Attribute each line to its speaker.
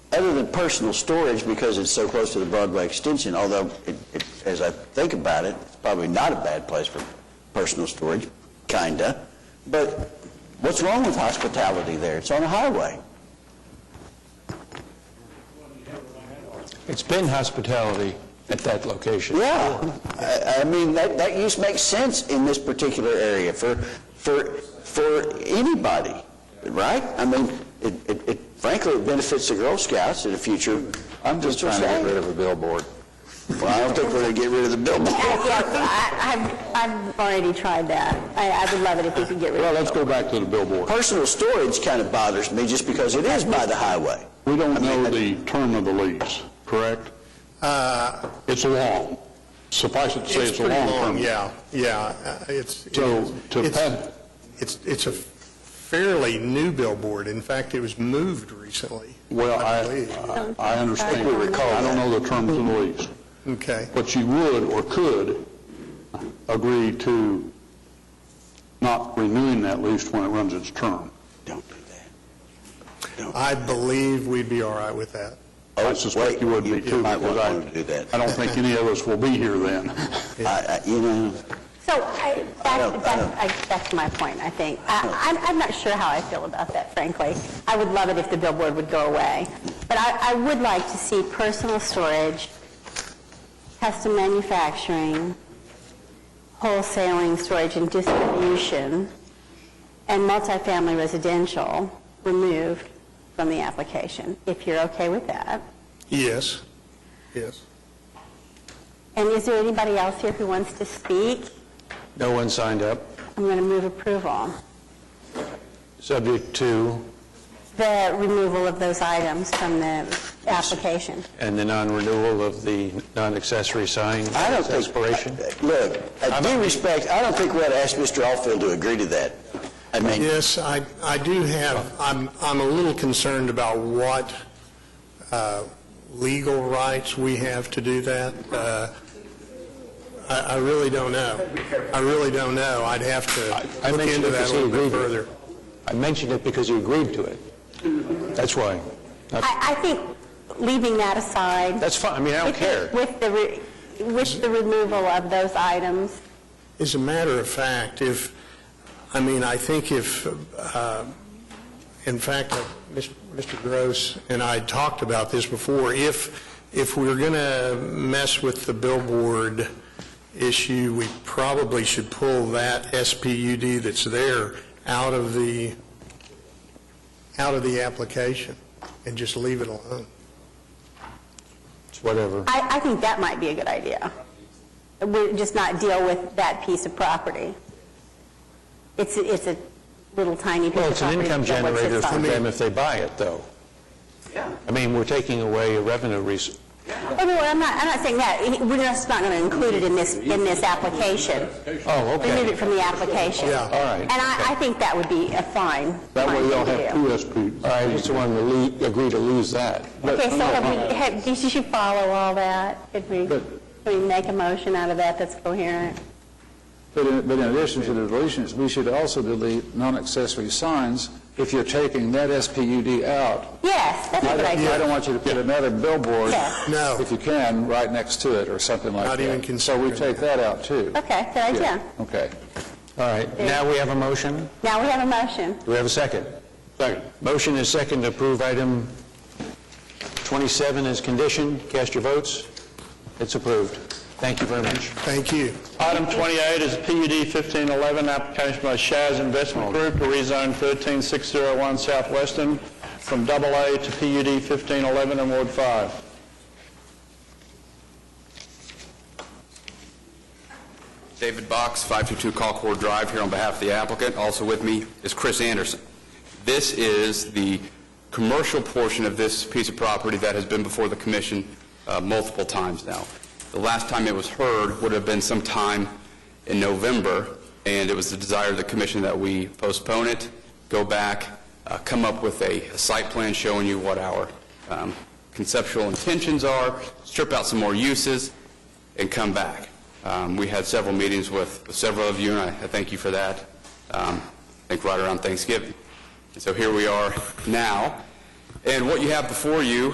Speaker 1: other than personal storage, because it's so close to the Broadway extension, although, it- it- as I think about it, it's probably not a bad place for personal storage, kinda, but what's wrong with hospitality there? It's on a highway.
Speaker 2: It's been hospitality at that location.
Speaker 1: Yeah, I, I mean, that, that use makes sense in this particular area for, for, for anybody, right? I mean, it, it- it frankly, it benefits the Girl Scouts in the future. I'm just trying to get rid of a billboard. Well, I don't think we're gonna get rid of the billboard.
Speaker 3: I- I've, I've already tried that. I, I would love it if we could get rid
Speaker 2: Well,
Speaker 3: of it.
Speaker 2: let's go back to the billboard.
Speaker 1: Personal storage kind of bothers me just because it is by the highway.
Speaker 2: We don't know the term of the lease, correct? It's long. Suffice it to say, it's a long
Speaker 4: Uh, pretty
Speaker 2: term.
Speaker 4: Yeah, yeah, uh, it's. it
Speaker 2: So,
Speaker 4: is.
Speaker 2: to
Speaker 4: It's-
Speaker 2: pa-
Speaker 4: It's, it's a fairly new billboard. In fact, it was moved recently.
Speaker 2: Well,
Speaker 4: believe.
Speaker 2: I, I understand.
Speaker 3: I recall
Speaker 2: I don't know the terms of the lease.
Speaker 4: Okay.
Speaker 2: But you would or could agree to not renewing that lease when it runs its term.
Speaker 1: Don't do that.
Speaker 4: I believe we'd be all right with that.
Speaker 2: I suspect you would be too.
Speaker 1: Oh, might
Speaker 2: because
Speaker 1: not
Speaker 2: I-
Speaker 1: want to do that.
Speaker 2: I don't think any of us will be here then.
Speaker 1: I, I, you know,
Speaker 3: So I,
Speaker 1: I don't- I
Speaker 3: that,
Speaker 1: don't-
Speaker 3: that, I- that's my point, I think. I, I'm, I'm not sure how I feel about that, frankly. I would love it if the billboard would go away. But I, I would like to see personal storage, custom manufacturing, wholesaling, storage and distribution, and multifamily residential removed from the application, if you're okay with that.
Speaker 4: Yes. Yes.
Speaker 3: And is there anybody else here who wants to speak?
Speaker 5: No one signed up.
Speaker 3: I'm going to move approval,
Speaker 5: Subject to,
Speaker 3: the removal of those items from the application.
Speaker 5: and the non-renewal of the non-accessory sign
Speaker 1: I don't think...
Speaker 5: expiration.
Speaker 1: Look, I due respect, I don't think we ought to ask Mr. Alfield to agree to that. I mean...
Speaker 4: Yes, I, I do have, I'm, I'm a little concerned about what uh, legal rights we have to do that. Uh, I, I really don't know. I really don't know. I'd have
Speaker 5: I- I
Speaker 4: to look
Speaker 5: mentioned
Speaker 4: into
Speaker 5: it
Speaker 4: that a
Speaker 5: because
Speaker 4: little
Speaker 5: he
Speaker 4: bit
Speaker 5: agreed with
Speaker 4: further.
Speaker 5: I mentioned it because you agreed to it. That's why.
Speaker 3: I, I think leaving that aside.
Speaker 5: That's fine, I mean, I don't
Speaker 3: with the-
Speaker 5: care.
Speaker 3: With the, re- with the removal of those items,
Speaker 4: As a matter of fact, if, I mean, I think if, uh, in fact, uh, Mis- Mr. Gross and I had talked about this before, if, if we're going to mess with the billboard issue, we probably should pull that SPUD that's there out of the, out of the application and just leave it alone.
Speaker 5: It's whatever.
Speaker 3: I, I think that might be a good idea. We just not deal with that piece of property. It's, a- it's a little tiny piece
Speaker 5: Well,
Speaker 3: of
Speaker 5: it's an
Speaker 3: property.
Speaker 5: income
Speaker 3: but what's it
Speaker 5: generator for
Speaker 3: from?
Speaker 5: them if they buy it, though. Yeah. I mean, we're taking away a revenue res-
Speaker 3: Oh, no, I'm not, I'm not saying that. We're just not going to include it in this, in this application.
Speaker 5: Oh,
Speaker 3: Remove
Speaker 5: okay.
Speaker 3: it from the application.
Speaker 4: Yeah.
Speaker 5: All right.
Speaker 3: And I, I think that would be a fine.
Speaker 2: That way
Speaker 3: fine
Speaker 2: you'll
Speaker 3: thing to
Speaker 2: have
Speaker 3: do.
Speaker 2: two SPs.
Speaker 5: All right, I just wanted to lea- agree to lose that.
Speaker 3: Okay, so have we, have, did you follow all that? Could we, could we make a motion out of that that's coherent?
Speaker 6: But in, but in addition to the deletions, we should also delete non-accessory signs if you're taking that SPUD out.
Speaker 3: Yes, that's a
Speaker 6: I
Speaker 3: good
Speaker 6: don't, I
Speaker 3: idea.
Speaker 6: don't want you to put another billboard,
Speaker 3: Yeah.
Speaker 4: No.
Speaker 6: if you can, right next to it or something like
Speaker 4: Not
Speaker 6: that.
Speaker 4: even
Speaker 6: So we take that out too.
Speaker 3: Okay, good
Speaker 6: Yeah,
Speaker 3: idea.
Speaker 6: Okay.
Speaker 5: All right, now we have a motion.
Speaker 3: Now we have a motion.
Speaker 5: Do we have a second? Second. Motion is second to approve item 27 as conditioned. Cast your votes. It's approved. Thank you very much.
Speaker 4: Thank you.
Speaker 7: Item 28 is PUD 1511, application by Shaz Investment Group to rezone 13601 Southwestern from AA to PUD 1511 in Ward 5.
Speaker 8: David Box, 522 Colcord Drive, here on behalf of the applicant. Also with me is Chris Anderson. This is the commercial portion of this piece of property that has been before the commission uh, multiple times now. The last time it was heard would have been sometime in November, and it was the desire of the commission that we postpone it, go back, uh, come up with a a site plan showing you what our um, conceptual intentions are, strip out some more uses, and come back. Um, We had several meetings with with several of you, and I I thank you for that, um, I think right around Thanksgiving. And so here we are now, and what you have before you